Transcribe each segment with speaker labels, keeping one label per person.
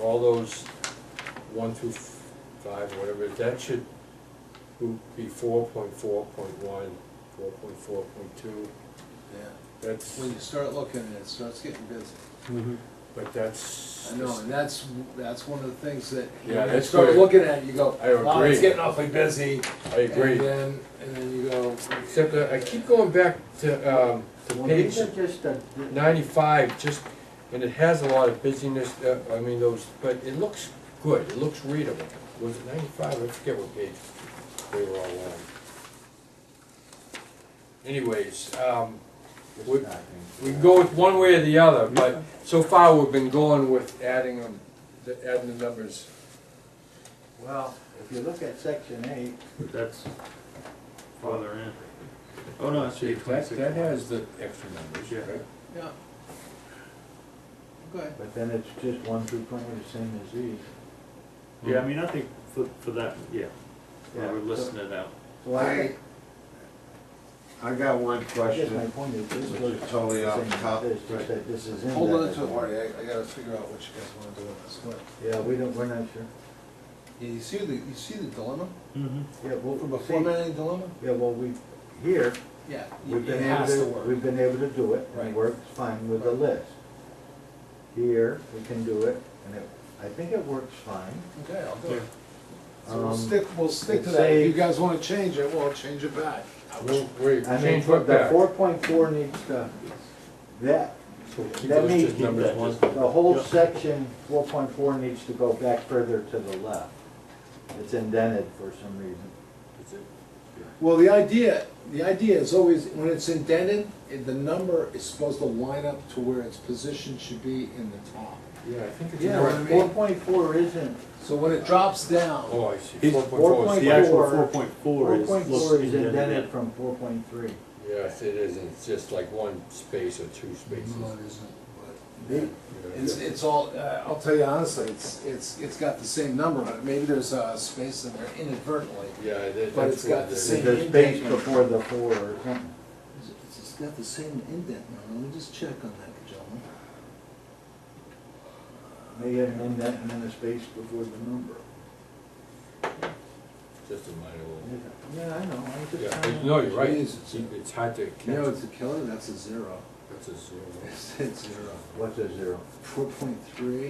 Speaker 1: all those one through five, or whatever, that should be four point four point one, four point four point two,
Speaker 2: Yeah,
Speaker 1: that's,
Speaker 2: when you start looking at it, it starts getting busy.
Speaker 1: but that's.
Speaker 2: I know, and that's, that's one of the things that, you
Speaker 1: Yeah,
Speaker 2: know, you
Speaker 1: that's
Speaker 2: start
Speaker 1: where-
Speaker 2: looking at it, you go,
Speaker 1: I
Speaker 2: wow, it's
Speaker 1: agree.
Speaker 2: getting awfully busy.
Speaker 1: I agree,
Speaker 2: And then, and then you go.
Speaker 1: except that I keep going back to, um, to
Speaker 3: Well,
Speaker 1: page
Speaker 3: these are just uh, a,
Speaker 1: ninety-five, just, and it has a lot of busyness, uh, I mean, those, but it looks good, it looks readable. Was it ninety-five, I forget what page they were all on. Anyways, um, we, we can go with one way or the other, but so far we've been going with adding them, the- adding the numbers.
Speaker 3: well, if you look at section eight,
Speaker 4: That's farther in. Oh, no, it's page
Speaker 1: That,
Speaker 4: twenty-six.
Speaker 1: that has the extra numbers,
Speaker 4: Yeah.
Speaker 1: right?
Speaker 2: Yeah. Okay.
Speaker 3: but then it's just one through twenty, the same as these.
Speaker 4: Yeah, I mean, I think for, for that, yeah,
Speaker 5: Yeah.
Speaker 4: um, Yeah, we're listing it out.
Speaker 3: So I,
Speaker 5: I got one
Speaker 3: I guess my
Speaker 5: question.
Speaker 3: point is, this
Speaker 5: Which
Speaker 3: goes.
Speaker 5: is totally
Speaker 3: the
Speaker 5: off
Speaker 3: same as
Speaker 5: topic,
Speaker 3: This, just
Speaker 5: right.
Speaker 3: that this is in.
Speaker 2: Hold
Speaker 3: that
Speaker 2: on to it,
Speaker 3: document.
Speaker 2: Marty, I, I gotta figure out what you guys wanna do on this one.
Speaker 3: Yeah, we don't, we're not sure.
Speaker 2: Yeah, you see the, you see the dilemma?
Speaker 4: Mm-hmm.
Speaker 3: Yeah,
Speaker 2: From a
Speaker 3: well, see,
Speaker 2: formatting dilemma?
Speaker 3: yeah, well, we, here,
Speaker 2: Yeah.
Speaker 3: we've
Speaker 2: It
Speaker 3: been able
Speaker 2: has to
Speaker 3: to,
Speaker 2: work.
Speaker 3: we've been able to do it, and
Speaker 2: Right.
Speaker 3: it works fine with the
Speaker 2: Right.
Speaker 3: list. Here, we can do it, and it, I think it works fine.
Speaker 2: Okay, I'll do it. So we'll
Speaker 3: Um,
Speaker 2: stick, we'll stick to
Speaker 3: it
Speaker 2: that. If you
Speaker 3: saves-
Speaker 2: guys wanna change it, we'll change it back.
Speaker 1: We'll- We
Speaker 3: I mean,
Speaker 1: change what
Speaker 3: the
Speaker 1: back.
Speaker 3: four point four needs to, that,
Speaker 1: So keep
Speaker 3: that
Speaker 1: those
Speaker 3: may-
Speaker 1: just numbers
Speaker 4: Keep that
Speaker 1: one-
Speaker 4: just-
Speaker 3: the whole
Speaker 4: Yeah.
Speaker 3: section four point four needs to go back further to the left. It's indented for some reason.
Speaker 2: Well, the idea, the idea is always, when it's indented, it- the number is supposed to line up to where its position should be in the top.
Speaker 1: Yeah, I think it's.
Speaker 2: You know what I
Speaker 3: Yeah,
Speaker 2: mean?
Speaker 3: four point four isn't,
Speaker 2: So when it drops down,
Speaker 1: Oh, I see,
Speaker 4: He's-
Speaker 1: four point four is the
Speaker 4: The actual
Speaker 3: Four-
Speaker 4: four point four
Speaker 3: four
Speaker 4: is.
Speaker 3: point
Speaker 4: looks
Speaker 3: four is
Speaker 4: indented
Speaker 3: indented
Speaker 4: in.
Speaker 3: from four point three.
Speaker 1: Yes, it is, and it's just like one space or two spaces.
Speaker 2: no, it isn't, but
Speaker 1: Yeah.
Speaker 2: It's, it's all, uh, I'll tell you honestly, it's, it's, it's got the same number on it. Maybe there's a space in there inadvertently.
Speaker 1: Yeah, that- that's.
Speaker 2: But it's
Speaker 1: what
Speaker 2: got the
Speaker 1: it is.
Speaker 2: same-
Speaker 3: There's a space before the four or something.
Speaker 2: It's- It's got the same indent number. Let me just check on that, gentlemen.
Speaker 3: They had an indent and then a space before the number.
Speaker 1: Just a minor little.
Speaker 3: Yeah, I know, I'm just
Speaker 1: Yeah,
Speaker 3: trying
Speaker 1: but
Speaker 3: to.
Speaker 1: no, you're right,
Speaker 2: Jeez,
Speaker 1: it's,
Speaker 2: it's
Speaker 1: it's hard to
Speaker 2: You know,
Speaker 1: catch.
Speaker 2: it's a killer, that's a zero.
Speaker 1: That's a zero.
Speaker 2: It's a zero.
Speaker 3: What's a zero?
Speaker 2: Four point three,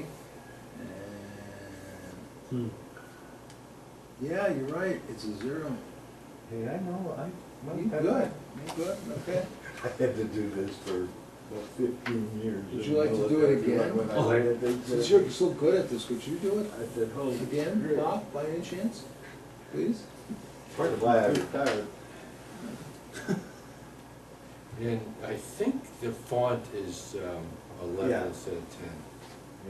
Speaker 2: and,
Speaker 4: Hmm.
Speaker 2: yeah, you're right, it's a zero.
Speaker 3: Hey, I know, I. well,
Speaker 2: You
Speaker 3: I-
Speaker 2: good, you good, okay.
Speaker 3: I had to do this for about fifteen years.
Speaker 2: Would you like to do it again?
Speaker 4: Oh,
Speaker 2: Since you're so good at this, would you do it
Speaker 3: I said, hold
Speaker 2: again, Bob, by any chance? Please?
Speaker 3: Part of why I retired.
Speaker 1: And I think the font is um,
Speaker 3: Yeah.
Speaker 1: eleven instead of ten.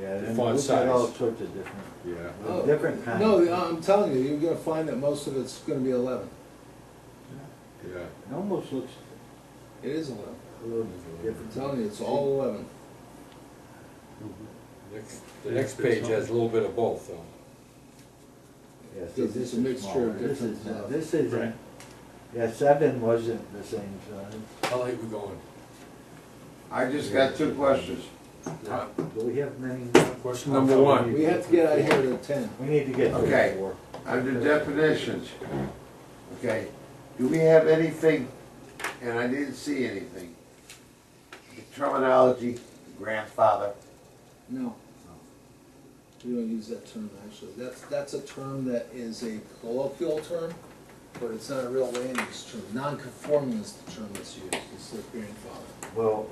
Speaker 3: Yeah,
Speaker 1: The
Speaker 3: then
Speaker 1: font
Speaker 3: we've got all
Speaker 1: size.
Speaker 3: sorts of different,
Speaker 1: Yeah.
Speaker 2: Oh,
Speaker 3: with different kinds.
Speaker 2: No, um, I'm telling you, you're gonna find that most of it's gonna be eleven.
Speaker 1: Yeah.
Speaker 3: It almost looks
Speaker 2: It is eleven.
Speaker 3: a little
Speaker 2: I'm
Speaker 3: different.
Speaker 2: telling you, it's all eleven.
Speaker 4: Mm-hmm.
Speaker 1: Next- The next page has a little bit of both, though.
Speaker 3: Yeah, so
Speaker 2: This is a mixture
Speaker 3: smaller.
Speaker 2: of
Speaker 3: This
Speaker 2: different
Speaker 3: is not-
Speaker 2: stuff.
Speaker 3: This
Speaker 4: Right.
Speaker 3: isn't, yeah, seven wasn't the same size.
Speaker 1: How late we going?
Speaker 5: I just got two questions.
Speaker 1: Yeah.
Speaker 3: Do we have many?
Speaker 1: Question number one.
Speaker 2: We have to get out of here at ten.
Speaker 3: We need to get to
Speaker 5: Okay.
Speaker 3: four.
Speaker 5: Under definitions, okay, do we have anything, and I didn't see anything, the terminology grandfather,
Speaker 2: No. We don't use that term, actually. That's, that's a term that is a colloquial term, but it's not a real land use term. Non-conforming is the term that's used, it's the grandfather.
Speaker 3: Well,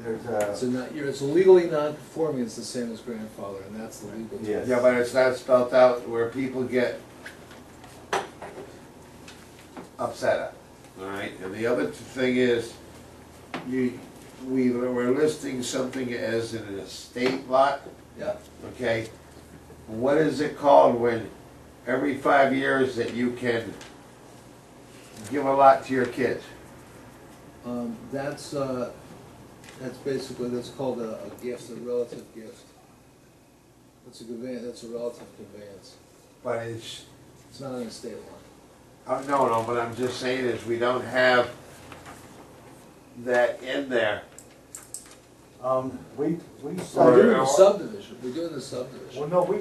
Speaker 3: there's uh,
Speaker 2: So
Speaker 3: a,
Speaker 2: not, you're- it's legally non-conforming, it's the same as grandfather, and that's the legal term.
Speaker 3: yes.
Speaker 5: yeah, but it's not spelled out where people get upset at, all right? And the other thing is, you, we were listing something as an estate lot,
Speaker 2: Yeah,
Speaker 5: okay? What is it called when every five years that you can give a lot to your kids?
Speaker 2: um, that's, uh, that's basically, that's called a, a gift, a relative gift. That's a conveyance, that's a relative conveyance.
Speaker 5: But it's,
Speaker 2: It's not an estate lot.
Speaker 5: uh, no, no, but I'm just saying is we don't have that in there.
Speaker 3: Um, we, we.
Speaker 5: Or-
Speaker 3: um,
Speaker 2: We're doing the subdivision, we're doing the subdivision.
Speaker 3: Well, no, we